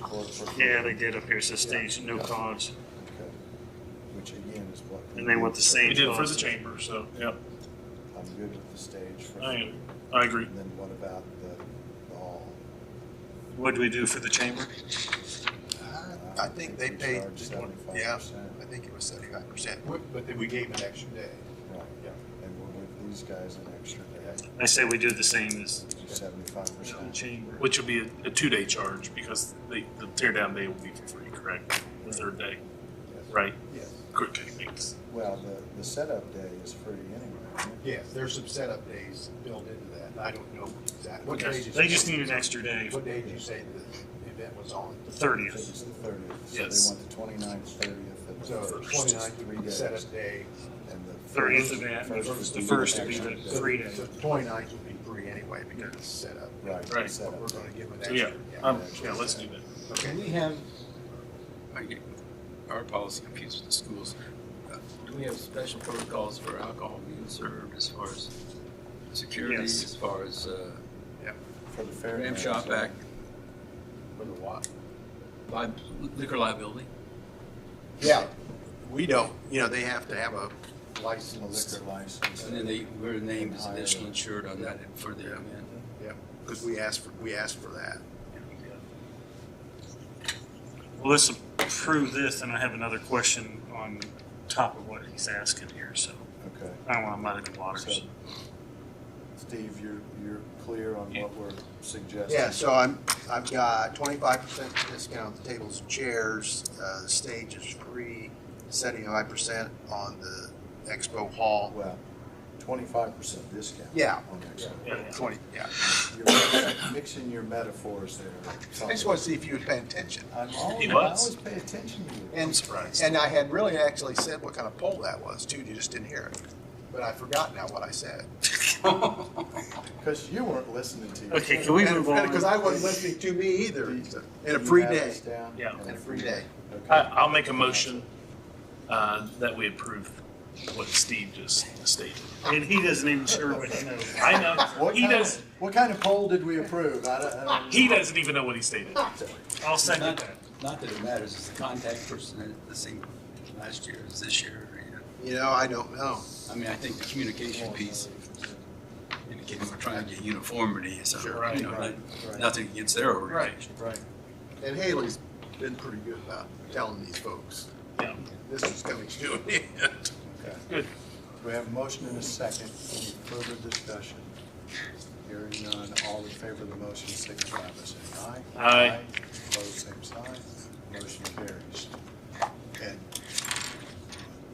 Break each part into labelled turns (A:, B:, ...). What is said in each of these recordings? A: clubs. are-
B: Yeah, they did up here, it says
A: Yeah.
B: stage, no cause,
A: Okay. Which again is what.
B: and they want the same.
C: We did it for the
B: cause.
C: chamber, so, yeah,
A: I'm good with the stage. for-
C: I am. I agree.
A: And then what about the, the hall?
B: What do we do for the chamber?
D: I think they
A: we
D: paid,
A: charge
D: just one-
A: 75%.
D: yeah, I think it was seventy-five percent. But then we gave an extra day.
A: Right, yeah. And we'll give these guys an extra day,
B: I say we do the same as
A: seventy-five
B: the
A: percent.
B: chamber.
C: Which will be a, a two-day charge because they, the teardown day will be for free, correct?
D: Mm-hmm.
C: The third day, right?
D: Yes.
C: Quick techniques.
A: Well, the, the setup day is free anyway. isn't it?
D: Yes, there's some setup days built into that, and I don't know exactly. What day did you
B: They just
D: say-
B: need an extra day,
D: What day did you say the event was on?
B: the
A: So
B: thirtieth.
A: it's the thirtieth. So
C: Yes.
A: they want the twenty-ninth, thirtieth, and the
D: So
A: first,
D: twenty-ninth would
A: three
D: be the
A: days.
D: setup day.
A: and the.
B: 30th
A: first-
B: event, and
A: first
B: the
A: would
B: first would be
A: extra
B: the
A: day.
B: three days.
D: So Twenty-ninth would be free anyway because it's set up.
A: Right. the
C: Right.
D: But we're
A: setup
D: gonna
A: day.
D: give an
C: So
D: extra.
C: yeah,
D: yeah.
C: um, yeah, let's do that.
D: Okay.
E: Can we have,
F: I get our policy confused with the schools. Uh, Do we have special protocols for alcohol being served as far as security,
B: Yes.
F: as far as uh,
A: For the fair.
F: Ram
A: grounds,
F: Shop
A: yeah.
F: Act? For the what? Liquor liability?
D: Yeah, we don't, you know, they have to have a license,
A: Liquor license.
F: And then they, we're named as additional insured on that for the event.
D: yeah, because we asked for, we asked for that.
B: Well, let's approve this, and I have another question on top of what he's asking here, so
A: Okay.
B: I don't want to muddy the
A: So,
B: waters.
A: Steve, you're, you're clear on what we're suggesting?
D: Yeah, so I'm, I've got twenty-five percent discount on the tables and chairs, uh, the stage is free, seventy-five percent on the expo hall.
A: Well, twenty-five percent discount.
D: Yeah.
A: on that.
B: Yeah.
D: Twenty, yeah.
A: You're Mixing your metaphors there.
D: I just want to see if you would pay attention.
A: I'm always,
C: He
A: I
C: was.
A: always pay attention to you.
D: And, and I had really actually said what kind of poll that was too, you just didn't hear it. But I forgot now what I said.
A: Because you weren't listening to yourself.
B: Okay, can we move on?
D: Because I wasn't listening to me either, in a
A: You
D: free
A: have
D: day.
A: this down?
C: Yeah.
D: In a free day.
A: Okay.
C: I, I'll make a motion, uh, that we approve what Steve just stated.
B: And he doesn't even sure what he knows.
C: I know,
A: What
C: he
A: kind
C: does,
A: of, what kind of poll did we approve? I don't, I don't.
C: he doesn't even know what he stated.
B: I'll second
F: Not,
B: that.
F: not that it matters, it's the contact person, the same last year as this year. you know.
D: You know, I don't know.
F: I mean, I think the communication piece indicating we're trying to get uniformity, so,
C: Right,
F: you know,
A: right,
F: that-
A: right.
F: nothing against their
C: Right,
F: organization.
A: Right.
D: And Haley's been pretty good about telling these folks,
C: yeah,
D: this is coming to an end.
A: Okay.
C: good.
A: We have a motion and a second. Any further discussion? Hearing none, all in favor of the motion, signify by saying aye.
C: Aye.
A: Opposed, same sign. Motion carries. And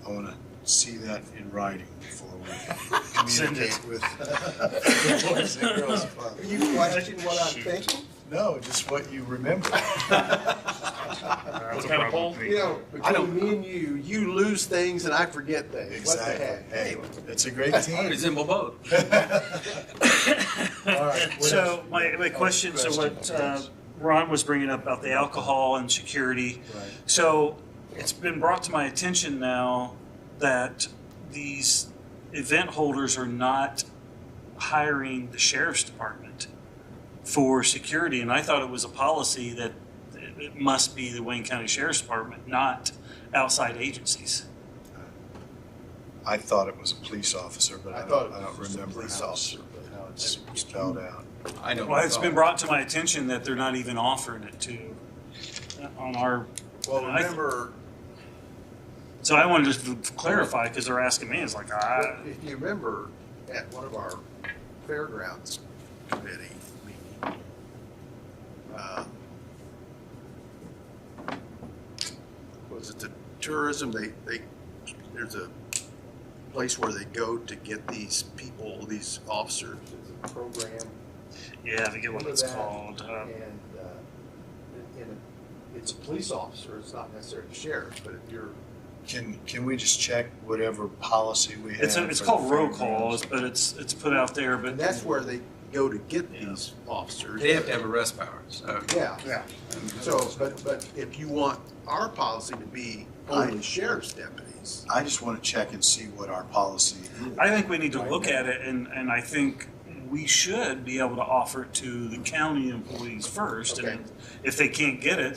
A: I want to see that in writing before we
B: Send it.
A: communicate with the boys and girls club.
D: You question what I'm thinking?
A: No, just what you remember.
B: That's a
C: kind of
B: problem
C: poll?
B: for me.
D: You know,
C: I don't-
D: between me and you, you lose things and I forget things.
A: Exactly.
D: What the
A: Hey,
D: heck?
A: it's a great
F: I
A: team.
F: resemble both.
A: All right, what
B: So
A: else?
B: my, my question, so what uh,
A: Questions.
B: Ron was bringing up about the alcohol and security.
A: Right.
B: So it's been brought to my attention now that these event holders are not hiring the sheriff's department for security. And I thought it was a policy that it it must be the Wayne County Sheriff's Department, not outside agencies.
G: I thought it was a police officer, but I
D: I thought
G: don't,
D: it
G: I don't
D: was just a
G: remember
D: police
G: how it's,
D: officer, but-
G: how it's spelled out.
F: I don't.
B: Well, it's been
F: recall.
B: brought to my attention that they're not even offering it to, uh, on our
D: Well,
B: And I-
D: remember,
B: So I wanted to just clarify because they're asking me. It's like, ah,
D: if you remember, at one of our fairgrounds committee meeting, uh, was it the tourism, they, they, there's a place where they go to get these people, these officers, it's a program.
B: yeah, I forget what it's called. Uh,
D: And, uh, it- and it's a police officer, it's not necessarily the sheriff, but if you're
G: Can, can we just check whatever policy we have?
B: it's a, it's
G: for
B: called
G: the
B: roll
G: fairgrounds?
B: calls, but it's it's put out there. But
D: And that's where they go to get
B: Yeah.
D: these officers.
F: They have to have arrest powers, so.
D: Yeah,
B: yeah,
D: so, but, but if you want our policy to be only sheriff's deputies,
G: I just want to check and see what our policy is.
B: I think we need to look at it, and and I think we should be able to offer it to the county employees first,
D: Okay.
B: and if they can't get it,